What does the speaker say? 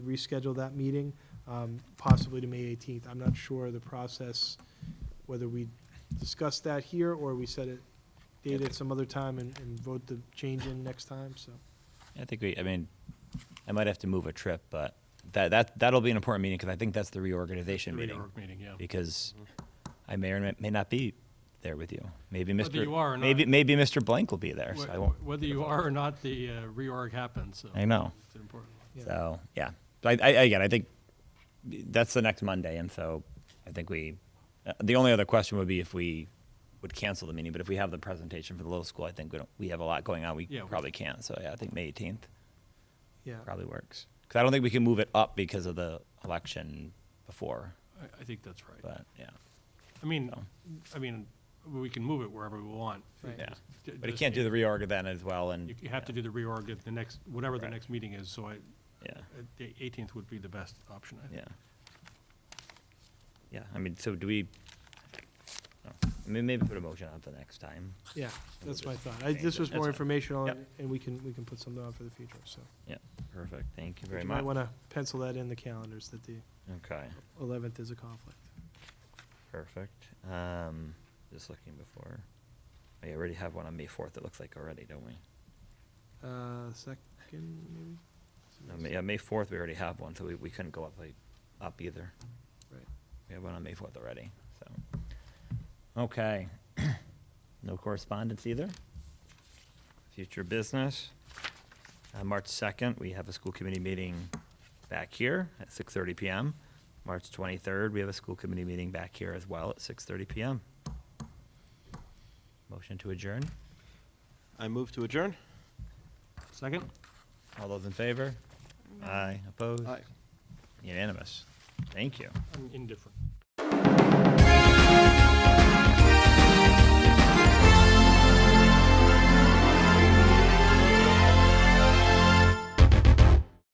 reschedule that meeting, um, possibly to May 18th. I'm not sure the process, whether we discuss that here or we set it, date at some other time and, and vote the change in next time, so. I think we. I mean, I might have to move a trip, but that that that'll be an important meeting because I think that's the reorganization The meeting. reorg meeting, yeah. Because I may or may- may not be there with you. Maybe Mr. Whether you are or not. Maybe maybe Mr. Blank will be there, so I won't. Wh- Whether you are or not, the uh, reorg happens, so. I know. It's important. yeah. So yeah, But I, I, again, I think that's the next Monday, and so I think we. Uh, the only other question would be if we would cancel the meeting, but if we have the presentation for the little school, I think we don't. We have a lot going on. We Yeah, we- probably can't. So yeah, I think May eighteenth Yeah, probably works because I don't think we can move it up because of the election before. I, I think that's right. But yeah, I mean, so, I mean, we can move it wherever we want. Right. yeah. Ju- But you just- can't do the reorg then as well, You and you have to do the reorg at the next, whatever the Right. next meeting is, so I, yeah, uh, the eighteenth would be the best option, I think. yeah, yeah. I mean, so do we? no. I mean, maybe put a motion on the next time. yeah, that's my thought. I, this was That's more fine. informational Yep. and we can, we can put something on for the future, so. Yeah, perfect. Thank you very You much. might want to pencil that in the calendars that the Okay, 11th is a conflict. perfect. Um, just looking before. Oh, yeah, We already have one on May fourth, it looks like already, don't we? Uh, second, maybe? No, May- Yeah, May fourth, we already have one, so we, we couldn't go up, like, up either. Right. We have one on May fourth already, so. Okay. No correspondence either? Future business. Uh, March second, we have a school committee meeting back here at six thirty PM. March twenty-third, we have a school committee meeting back here as well at six thirty PM. Motion to adjourn. I move to adjourn. Second? All those in favor? Aye. Opposed? Aye. Unanimous. Thank you. I'm indifferent.